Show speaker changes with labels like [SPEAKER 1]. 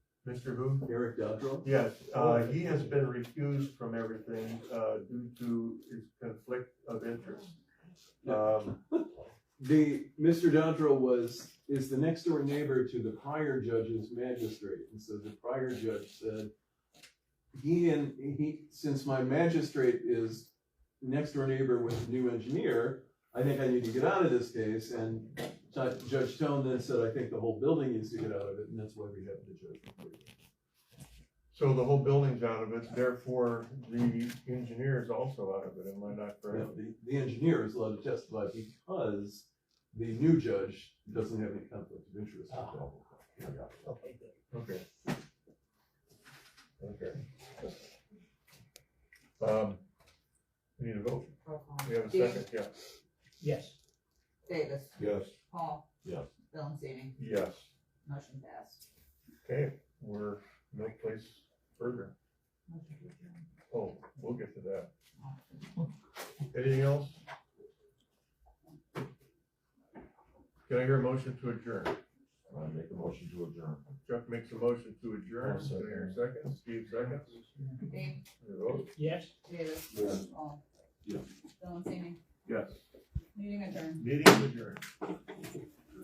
[SPEAKER 1] Mr. Who?
[SPEAKER 2] Eric Dodrell?
[SPEAKER 1] Yes, uh, he has been recused from everything, uh, due to his conflict of interest. Um,
[SPEAKER 2] The, Mr. Dodrell was, is the next door neighbor to the prior judge's magistrate, and so the prior judge said, he and, he, since my magistrate is next door neighbor with a new engineer, I think I need to get out of this case, and Ju- Judge Stone then said, I think the whole building needs to get out of it, and that's why we have the judge.
[SPEAKER 1] so the whole building's out of it, therefore the engineer is also out of it, am I not
[SPEAKER 2] Now,
[SPEAKER 1] correct?
[SPEAKER 2] the, the engineer is allowed to testify because the new judge doesn't have any conflict of interest. with that.
[SPEAKER 3] Okay, good.
[SPEAKER 1] Okay. Okay. Um, we need a vote,
[SPEAKER 3] Roll call.
[SPEAKER 1] we have a second, yeah,
[SPEAKER 3] Yes.
[SPEAKER 4] Davis,
[SPEAKER 5] Yes.
[SPEAKER 4] Paul.
[SPEAKER 5] Yes.
[SPEAKER 4] Valentini,
[SPEAKER 1] yes,
[SPEAKER 4] motion passed.
[SPEAKER 1] okay, we're no place further, oh, we'll get to that. Anything else? Can I hear a motion to adjourn?
[SPEAKER 5] I make a motion to adjourn.
[SPEAKER 1] Jeff makes a motion to adjourn,
[SPEAKER 5] I'll
[SPEAKER 1] can I
[SPEAKER 5] second.
[SPEAKER 1] hear a second, Steve seconds,
[SPEAKER 4] Dave,
[SPEAKER 1] Your vote?
[SPEAKER 3] Yes?
[SPEAKER 4] Davis,
[SPEAKER 5] Yes.
[SPEAKER 4] Paul.
[SPEAKER 5] Yeah.
[SPEAKER 4] Valentini,
[SPEAKER 1] Yes.
[SPEAKER 4] meeting adjourned.
[SPEAKER 1] Meeting adjourned.